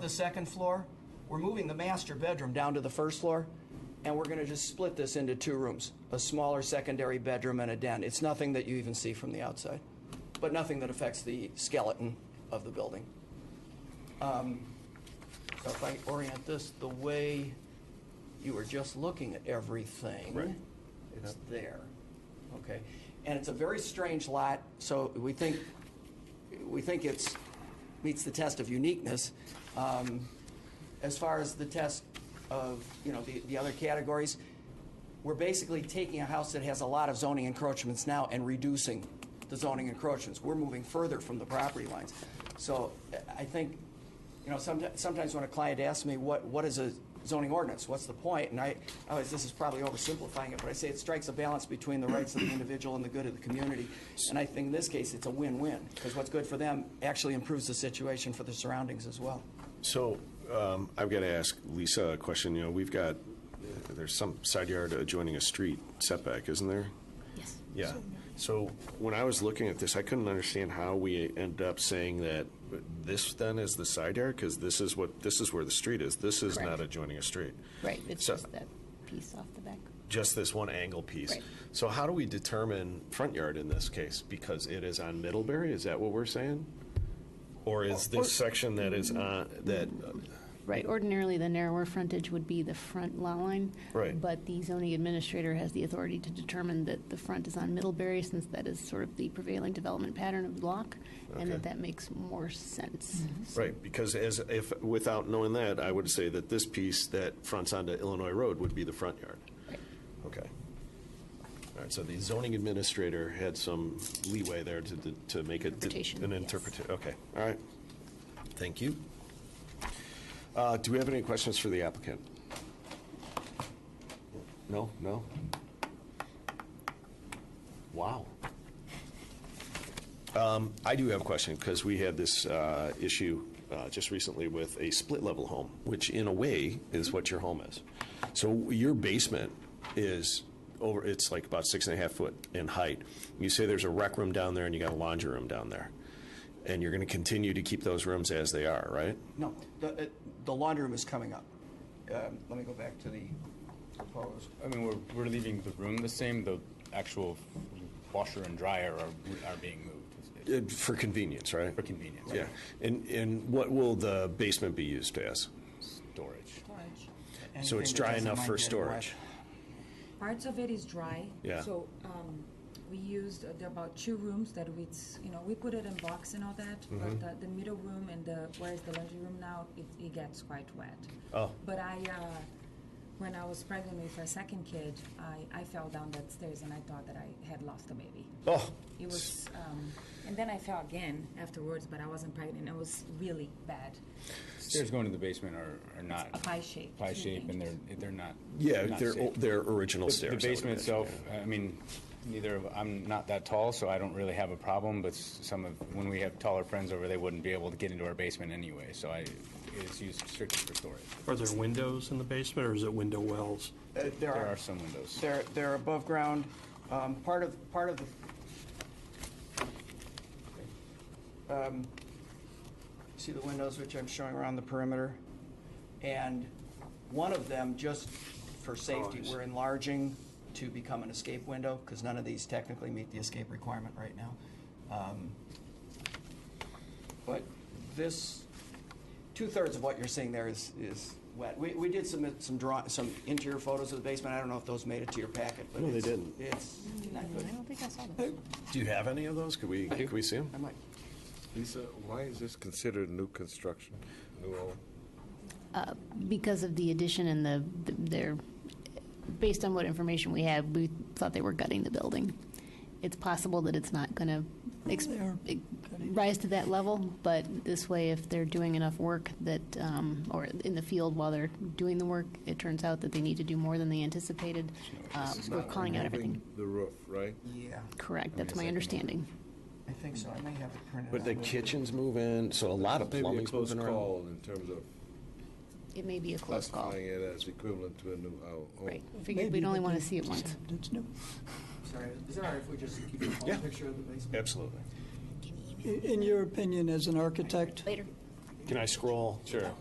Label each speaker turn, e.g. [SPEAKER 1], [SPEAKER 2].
[SPEAKER 1] the second floor, we're moving the master bedroom down to the first floor, and we're gonna just split this into two rooms, a smaller secondary bedroom and a den. It's nothing that you even see from the outside, but nothing that affects the skeleton of the building. Um, So if I orient this the way you were just looking at everything.
[SPEAKER 2] Right.
[SPEAKER 1] It's
[SPEAKER 2] Yep.
[SPEAKER 1] there. Okay. And it's a very strange lot, so we think, we think it's, meets the test of uniqueness. Um, As far as the test of, you know, the, the other categories, we're basically taking a house that has a lot of zoning encroachments now and reducing the zoning encroachments. We're moving further from the property lines. So I think, you know, sometimes, sometimes when a client asks me, what, what is a zoning ordinance? What's the point? And I, I always, this is probably oversimplifying it, but I say it strikes a balance between the rights of the individual and the good of the community. And I think in this case, it's a win-win, because what's good for them actually improves the situation for the surroundings as well.
[SPEAKER 2] So um, I've got to ask Lisa a question. You know, we've got, uh, there's some side yard adjoining a street setback, isn't there?
[SPEAKER 3] Yes.
[SPEAKER 2] Yeah. So when I was looking at this, I couldn't understand how we end up saying that this then is the side yard because this is what, this is where the street is. This is not
[SPEAKER 3] Correct.
[SPEAKER 2] adjoining a street.
[SPEAKER 3] Right, it's
[SPEAKER 2] So-
[SPEAKER 3] just that piece off the back.
[SPEAKER 2] Just this one angle piece.
[SPEAKER 3] Right.
[SPEAKER 2] So how do we determine front yard in this case? Because it is on Middlebury, is that what we're saying? Or is this section that is on, that,
[SPEAKER 3] Right, ordinarily, the narrower frontage would be the front lot line.
[SPEAKER 2] Right.
[SPEAKER 3] But the zoning administrator has the authority to determine that the front is on Middlebury, since that is sort of the prevailing development pattern of the block, and that
[SPEAKER 2] Okay. Mm-hmm.
[SPEAKER 3] that makes more sense.
[SPEAKER 2] Right, because as, if, without knowing that, I would say that this piece that fronts onto Illinois Road would be the front yard.
[SPEAKER 3] Right.
[SPEAKER 2] Okay. All right, so the zoning administrator had some leeway there to, to- to make it.
[SPEAKER 3] Interpretation,
[SPEAKER 2] An
[SPEAKER 3] yes.
[SPEAKER 2] interpretation, okay, all right. Thank you. Uh, Do we have any questions for the applicant? No, no? Wow. Um, I do have a question, because we had this uh, issue uh, just recently with a split-level home, which in a way is what your home is. So your basement is over, it's like about six and a half foot in height. You say there's a rec room down there and you got a laundry room down there. And you're going to continue to keep those rooms as they are, right?
[SPEAKER 1] No, the, uh, the laundry room is coming up. Um, Let me go back to the proposed.
[SPEAKER 4] I mean, we're, we're leaving the room the same, the actual washer and dryer are, are being moved
[SPEAKER 2] Uh, For convenience, right?
[SPEAKER 4] for convenience.
[SPEAKER 2] Yeah. And, and what will the basement be used as?
[SPEAKER 4] Storage.
[SPEAKER 2] So it's
[SPEAKER 1] Anything that
[SPEAKER 2] dry
[SPEAKER 1] doesn't
[SPEAKER 2] enough for
[SPEAKER 1] mind getting wet.
[SPEAKER 2] storage?
[SPEAKER 5] Parts of it is dry.
[SPEAKER 2] Yeah.
[SPEAKER 5] So, um, we used, uh, there are about two rooms that we, s- you know, we put it in box and all that,
[SPEAKER 2] Mm-hmm.
[SPEAKER 5] but uh, the middle room and the, where is the laundry room now, it, it gets quite wet.
[SPEAKER 2] Oh.
[SPEAKER 5] But I, uh, when I was pregnant with our second kid, I, I fell down that stairs and I thought that I had lost the baby.
[SPEAKER 2] Oh,
[SPEAKER 5] It was, um, and then I fell again afterwards, but I wasn't pregnant. It was really bad.
[SPEAKER 4] Stairs going to the basement are, are not.
[SPEAKER 5] A pie shape.
[SPEAKER 4] Pie
[SPEAKER 5] It's
[SPEAKER 4] shape, and they're,
[SPEAKER 5] dangerous.
[SPEAKER 4] they're not.
[SPEAKER 2] yeah,
[SPEAKER 4] not
[SPEAKER 2] their,
[SPEAKER 4] safe.
[SPEAKER 2] their original
[SPEAKER 4] The-
[SPEAKER 2] stairs. I
[SPEAKER 4] The
[SPEAKER 2] would
[SPEAKER 4] basement
[SPEAKER 2] imagine,
[SPEAKER 4] itself,
[SPEAKER 2] yeah.
[SPEAKER 4] I mean, neither of, I'm not that tall, so I don't really have a problem, but s- some of, when we have taller friends over, they wouldn't be able to get into our basement anyway, so I, it's used strictly for storage.
[SPEAKER 6] Are there windows in the basement, or is it window wells?
[SPEAKER 1] Uh, There
[SPEAKER 4] There
[SPEAKER 1] are,
[SPEAKER 4] are some windows.
[SPEAKER 1] they're, they're above ground. Um, Part of, part of the, um, see the windows which I'm showing around the perimeter? And one of them, just for safety,
[SPEAKER 6] Oh, I see.
[SPEAKER 1] we're enlarging to become an escape window, because none of these technically meet the escape requirement right now. Um, But this, two-thirds of what you're seeing there is, is wet. We, we did submit some draw, some interior photos of the basement. I don't know if those made it to your packet, but
[SPEAKER 2] No, they
[SPEAKER 1] it's-
[SPEAKER 2] didn't.
[SPEAKER 1] It's not good.
[SPEAKER 3] I don't think I saw that.
[SPEAKER 2] Do you have any of those? Could we, could we see them?
[SPEAKER 1] I might,
[SPEAKER 7] Lisa, why is this considered new construction, new home?
[SPEAKER 3] Because of the addition and the, the- their, based on what information we had, we thought they were gutting the building. It's possible that it's not going to rise to that level, but this way, if they're doing enough work that, um, or in the field while they're doing the work, it turns out that they need to do more than they anticipated. uh, We're calling out everything.
[SPEAKER 7] Moving The roof, right?
[SPEAKER 1] yeah,
[SPEAKER 3] Correct, that's my understanding.
[SPEAKER 1] I think so. I may have it printed
[SPEAKER 2] But the
[SPEAKER 1] out.
[SPEAKER 2] kitchens move in, so a lot of
[SPEAKER 7] Maybe a
[SPEAKER 2] plumbing's
[SPEAKER 7] close
[SPEAKER 2] moving around.
[SPEAKER 7] call in terms of
[SPEAKER 3] It may be a close call.
[SPEAKER 7] classifying it as equivalent to a new uh, hou- home.
[SPEAKER 3] Right, figured we'd only want to see it once.
[SPEAKER 8] It's new.
[SPEAKER 1] Sorry, is it all right if we just keep the whole
[SPEAKER 2] Yeah.
[SPEAKER 1] picture of the basement?
[SPEAKER 2] Absolutely.
[SPEAKER 8] In your opinion, as an architect,
[SPEAKER 3] Later.
[SPEAKER 9] Can I scroll?
[SPEAKER 2] Sure.